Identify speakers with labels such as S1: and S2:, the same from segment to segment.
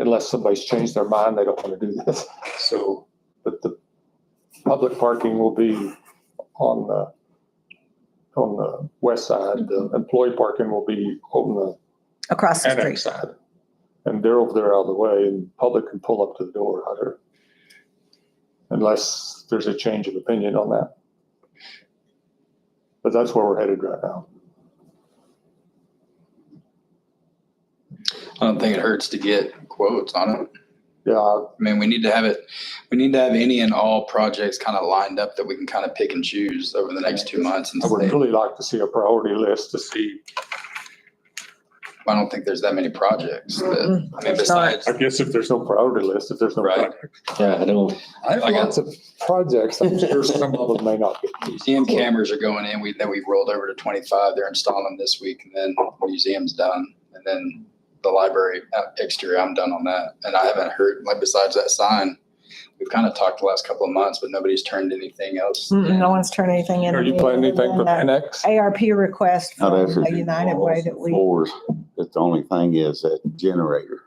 S1: unless somebody's changed their mind, they don't want to do this. So, but the public parking will be on the, on the west side. The employee parking will be on the
S2: across the
S1: annex
S2: street.
S1: side. And they're over there out of the way and public can pull up to the door out there. Unless there's a change of opinion on that. But that's where we're headed right now.
S3: I don't think it hurts to get quotes on it.
S1: Yeah, I-
S3: I mean, we need to have it, we need to have any and all projects kind of lined up that we can kind of pick and choose over the next two months. And
S1: I would
S3: say,
S1: really like to see a priority list to see.
S3: I don't think there's that many projects that,
S2: Mm,
S3: I mean,
S2: There's not.
S3: besides,
S1: I guess if there's no priority list, if there's no.
S3: Right.
S1: project-
S4: Yeah, I don't.
S3: I
S1: There's
S3: got
S1: Lots of projects, I'm sure some of them may not be.
S3: museum cameras are going in, we, that we rolled over to twenty-five, they're installing them this week, and then museum's done. And then the library uh, exterior, I'm done on that, and I haven't heard, like, besides that sign, we've kind of talked the last couple of months, but nobody's turned anything else.
S2: Mm-mm, No one's turned anything in.
S1: Are you planning anything for
S2: And, uh,
S1: annex?
S2: ARP request
S5: Not
S2: from
S5: after
S2: the
S5: the
S2: United Way
S5: walls
S2: that
S5: and
S2: we,
S5: Floors, that's the only thing is that generator.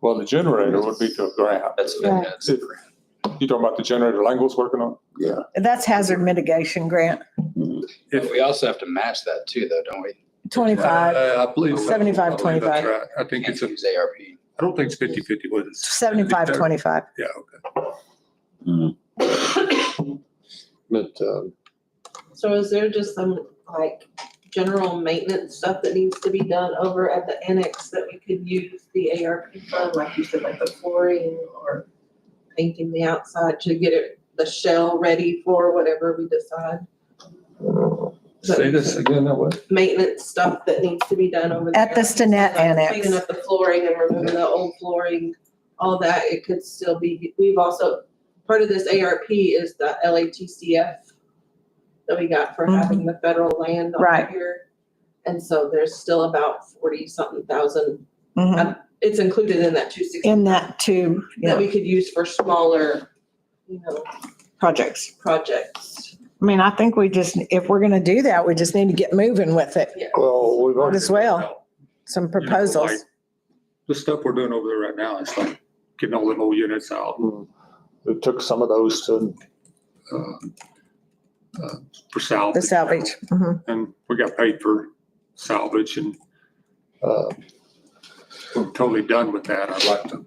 S1: Well, the generator would be to a grant.
S3: That's, that's,
S1: Right. You talking about the generator Langle's working on?
S5: Yeah.
S2: that's hazard mitigation grant,
S5: Mhm.
S3: But we also have to match that too, though, don't we?
S2: twenty-five,
S6: Uh, I believe. so.
S2: 75,
S6: I believe that's
S2: 25.
S6: right. I think
S3: Can't
S6: it's, a.
S3: use ARP.
S6: I don't think it's fifty fifty, but it's.
S2: seventy-five, twenty-five.
S6: Yeah, okay.
S5: Mhm.
S1: But, um,
S7: So is there just some like general maintenance stuff that needs to be done over at the annex that we could use the ARP fund, like you said, like the flooring or painting the outside to get it, the shell ready for whatever we decide?
S6: Say this again, that was.
S7: Maintenance stuff that needs to be done over there.
S2: At the Stinnett
S7: Like
S2: Annex.
S7: Cleaning up the flooring and removing the old flooring, all that, it could still be, we've also, part of this ARP is the LATCF that we got for having the federal land
S2: Mm-hmm. Right.
S7: on here. And so there's still about forty something thousand,
S2: Mhm.
S7: it's included in that two sixty.
S2: In that too, you
S7: That
S2: know,
S7: we could use for smaller, you know,
S2: projects.
S7: projects.
S2: I mean, I think we just, if we're gonna do that, we just need to get moving with it,
S1: well, we've
S2: Might
S1: already.
S2: as well, some
S6: You know, like,
S2: proposals.
S6: The stuff we're doing over there right now, it's like getting all them old units out.
S1: Mm. It took some of those to,
S6: um, uh, For salvage.
S2: The salvage, mhm.
S6: And we got paid for salvage and
S1: uh,
S6: we're totally done with that. I'd like to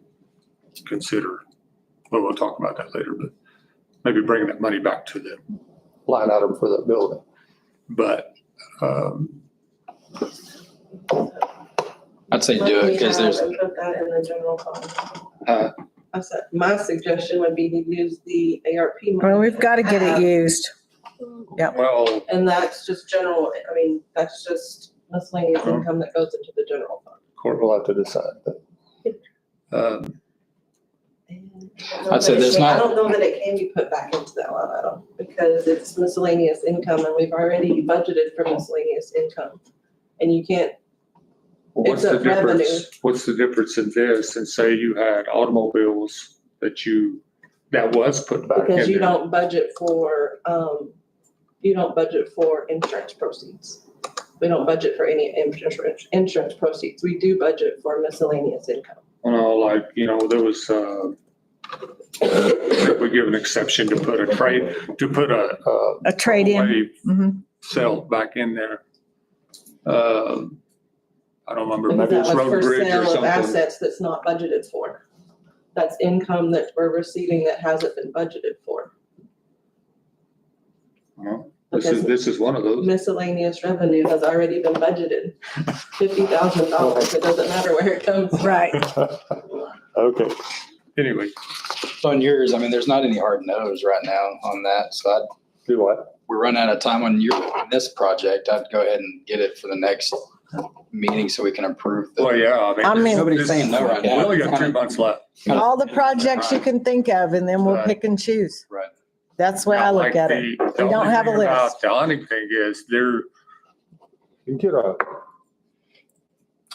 S6: consider, well, we'll talk about that later, but maybe bringing that money back to the
S1: line item for that building.
S6: But um,
S3: I'd say do it because there's,
S7: And Put that in the general fund.
S3: Huh?
S7: I said, my suggestion would be to use the ARP. money.
S2: well, we've got to get it used.
S6: well,
S7: And that's just general, I mean, that's just miscellaneous
S6: Mhm.
S7: income that goes into the general fund.
S1: Court will have to decide that.
S6: um,
S3: I'd say there's
S7: I
S3: not-
S7: don't know that it can be put back into that line item because it's miscellaneous income and we've already budgeted for miscellaneous income. And you can't,
S6: what's
S7: It's
S6: the
S7: a revenue.
S6: difference? What's the difference in this? And say you had automobiles that you, that was put back
S7: because you
S6: in there.
S7: don't budget for, um, you don't budget for insurance proceeds. We don't budget for any insurance, insurance proceeds. We do budget for miscellaneous income.
S6: Well, like, you know, there was, uh, we give an exception to put a trade, to put a
S1: Uh,
S2: A trade-in,
S6: away
S7: Mm-hmm.
S2: mhm.
S6: sale back in there. Um, I don't remember,
S7: Because
S6: maybe
S7: that
S6: it's
S7: was
S6: Road
S7: for
S6: Bridge or
S7: sale of
S6: something.
S7: assets that's not budgeted for. That's income that we're receiving that hasn't been budgeted for.
S6: Well, This is, this is one of those.
S7: Miscellaneous revenue has already been budgeted, fifty thousand dollars, it doesn't matter where it comes from.
S2: right.
S1: Okay,
S6: Anyway,
S3: on yours, I mean, there's not any hard no's right now on that. So I'd,
S1: do what?
S3: we're running out of time on your, on this project. I'd go ahead and get it for the next meeting so we can approve. the-
S6: Well, Oh, yeah,
S2: I
S6: I mean.
S2: mean-
S3: Nobody's saying no right now.
S6: We only got three months left.
S2: All the projects you can think of, and then we'll pick and choose.
S3: Right.
S2: That's the way I look at it.
S6: Like the- the
S2: We don't
S6: only
S2: have a
S6: thing
S2: list.
S6: about The only thing is, they're,
S1: You get a,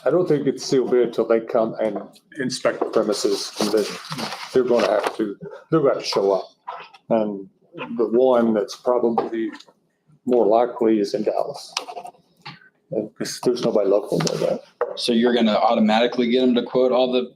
S1: I don't think it's sealed bid until they come and
S6: inspect,
S1: premises, and then they're gonna have to, they're gonna show up. And the one that's probably more likely is in Dallas. And there's nobody local there, right?
S3: So you're going to automatically get them to quote all the